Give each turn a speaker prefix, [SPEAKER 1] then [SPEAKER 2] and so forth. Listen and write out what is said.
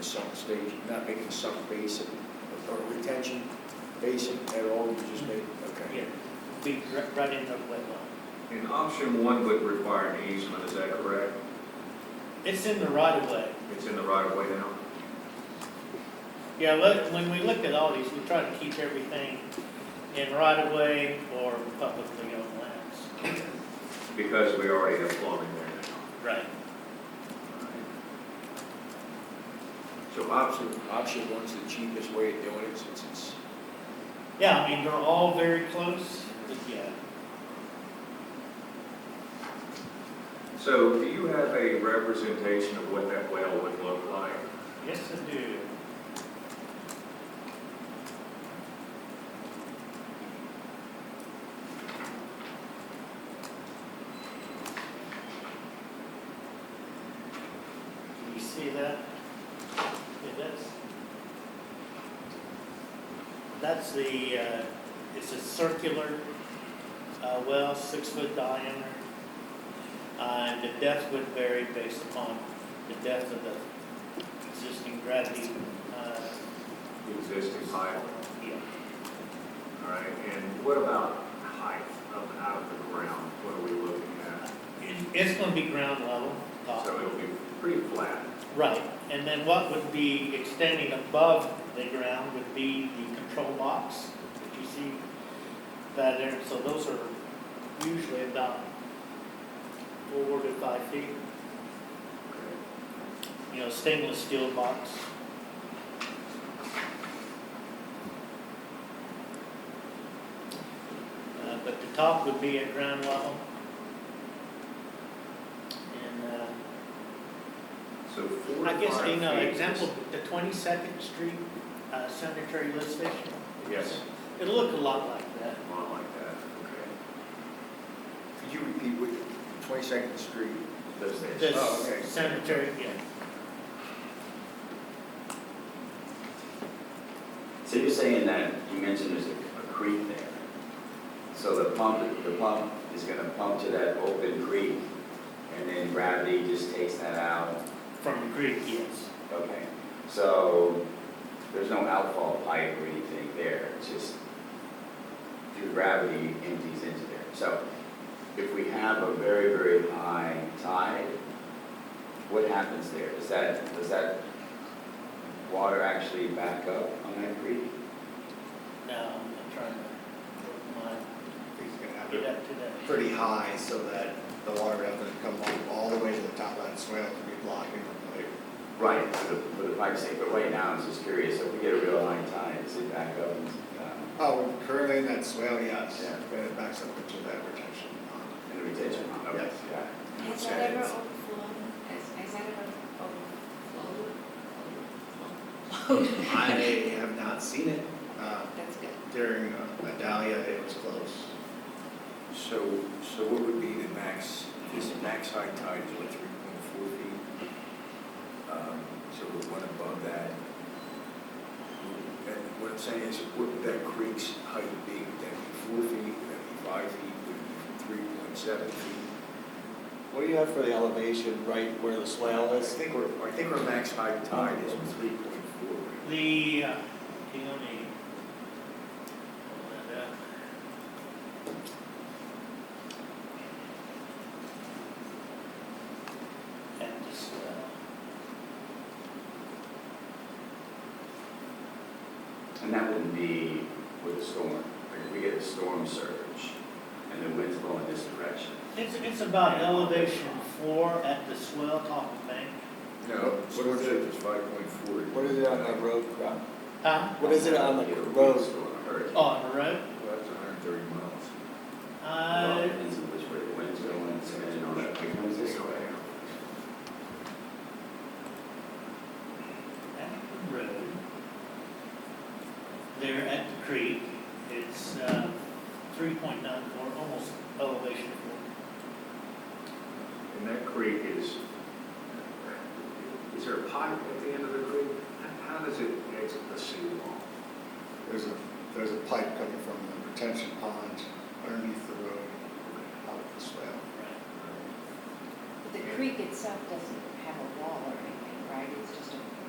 [SPEAKER 1] sump stage, You're not making a sump basin or a retention basin at all, you just made, okay.
[SPEAKER 2] Yeah, we ru- run into wet well.
[SPEAKER 3] And option one would require an easement, is that correct?
[SPEAKER 2] It's in the right of way.
[SPEAKER 3] It's in the right of way now?
[SPEAKER 2] Yeah, look, when we looked at all these, we tried to keep everything in right of way or publicly owned lands.
[SPEAKER 3] Because we already have plumbing there
[SPEAKER 2] Right.
[SPEAKER 3] now. So option,
[SPEAKER 1] Option one's the cheapest way of doing it since it's,
[SPEAKER 2] Yeah, I mean, they're all very close, but yeah.
[SPEAKER 3] so do you have a representation of what that well would look like?
[SPEAKER 2] Yes, I do. Can you see that? Yeah, that's, that's the, uh, it's a circular uh, well, six foot diameter. Uh, And the depth would vary based upon the depth of the existing gravity. uh,
[SPEAKER 3] The Existing pipe,
[SPEAKER 2] yeah.
[SPEAKER 3] all right, and what about height of, out of the ground? What are we looking at?
[SPEAKER 2] It- It's going to be ground level, top.
[SPEAKER 3] So it'll be pretty flat,
[SPEAKER 2] right. And then what would be extending above the ground would be the control box that you see that there. So those are usually about four to five feet,
[SPEAKER 3] okay?
[SPEAKER 2] you know, stainless steel box. Uh, But the top would be at ground level. And, uh,
[SPEAKER 3] So four to
[SPEAKER 2] I guess,
[SPEAKER 3] five
[SPEAKER 2] you know,
[SPEAKER 3] feet is-
[SPEAKER 2] example, the Twenty-second Street uh, Cemetery lift station.
[SPEAKER 3] Yes,
[SPEAKER 2] It looked a lot like that.
[SPEAKER 3] a lot like that, okay.
[SPEAKER 1] could you repeat what, Twenty-second Street?
[SPEAKER 3] Lift station.
[SPEAKER 2] The
[SPEAKER 1] Oh, okay.
[SPEAKER 2] cemetery, yeah,
[SPEAKER 4] So you're saying that, you mentioned there's a a creek there. So the pump, the pump is gonna pump to that open creek, and then gravity just takes that out?
[SPEAKER 2] from the Greek, yes.
[SPEAKER 4] Okay, so there's no outfall pipe or anything there, it's just through gravity empties into there. So if we have a very, very high tide, what happens there? Does that, does that water actually back up on that creek?
[SPEAKER 2] Now, I'm trying to, my,
[SPEAKER 5] He's gonna have
[SPEAKER 2] get
[SPEAKER 5] it
[SPEAKER 2] up to that.
[SPEAKER 5] pretty high so that the water doesn't come all- all the way to the top of that swale to be blocking the lake.
[SPEAKER 4] Right, for the, for the pipe's sake, but right now, I'm just curious, if we get a real high tide, does it back up? and, um,
[SPEAKER 5] Oh, currently in that swale, yes,
[SPEAKER 4] Yeah.
[SPEAKER 5] but it backs up into that retention pond.
[SPEAKER 4] And the retention pond, okay,
[SPEAKER 5] Yes.
[SPEAKER 4] yeah.
[SPEAKER 6] Has
[SPEAKER 5] Yeah,
[SPEAKER 6] that ever
[SPEAKER 5] it's-
[SPEAKER 6] overflowed? Has, has that ever
[SPEAKER 5] I have not seen it. Uh,
[SPEAKER 6] overflowed? That's good.
[SPEAKER 5] During uh, Adalia, it was close.
[SPEAKER 1] So, so what would be the max, is the max high tide is like three point four feet? Um, So we're one above that. And what I'm saying is, what would that creek's height be? Would that be four feet, would that be five feet, would it be three point seven feet?
[SPEAKER 7] What do you have for the elevation right where the swale
[SPEAKER 1] I
[SPEAKER 7] is?
[SPEAKER 1] think we're, I think our max high tide is three point four.
[SPEAKER 2] The, uh, okay, let me pull that up. And just, uh,
[SPEAKER 4] And that wouldn't be with a storm, like if we get a storm surge and the wind's blowing this direction.
[SPEAKER 2] it's, it's about elevation four at the swell top of bank.
[SPEAKER 1] No, storm surge is five point four.
[SPEAKER 7] What is it on that road, Rob?
[SPEAKER 2] Huh?
[SPEAKER 7] What is it on the
[SPEAKER 4] Get a
[SPEAKER 7] road? Uh,
[SPEAKER 4] windstorm, a hurricane.
[SPEAKER 2] On the road?
[SPEAKER 1] That's hundred and thirty miles.
[SPEAKER 2] Uh,
[SPEAKER 4] Well, it Depends on which way the wind's going, it's depending on if it comes this way.
[SPEAKER 2] at the road, there at the creek, it's uh, three point nine four, almost elevation four.
[SPEAKER 3] And that creek is, is there a pipe at the end of the creek? How how does it exit the seawall?
[SPEAKER 5] There's a, there's a pipe coming from the retention pond underneath the road out of the swale.
[SPEAKER 6] But the creek itself doesn't have a wall or anything, right? It's just a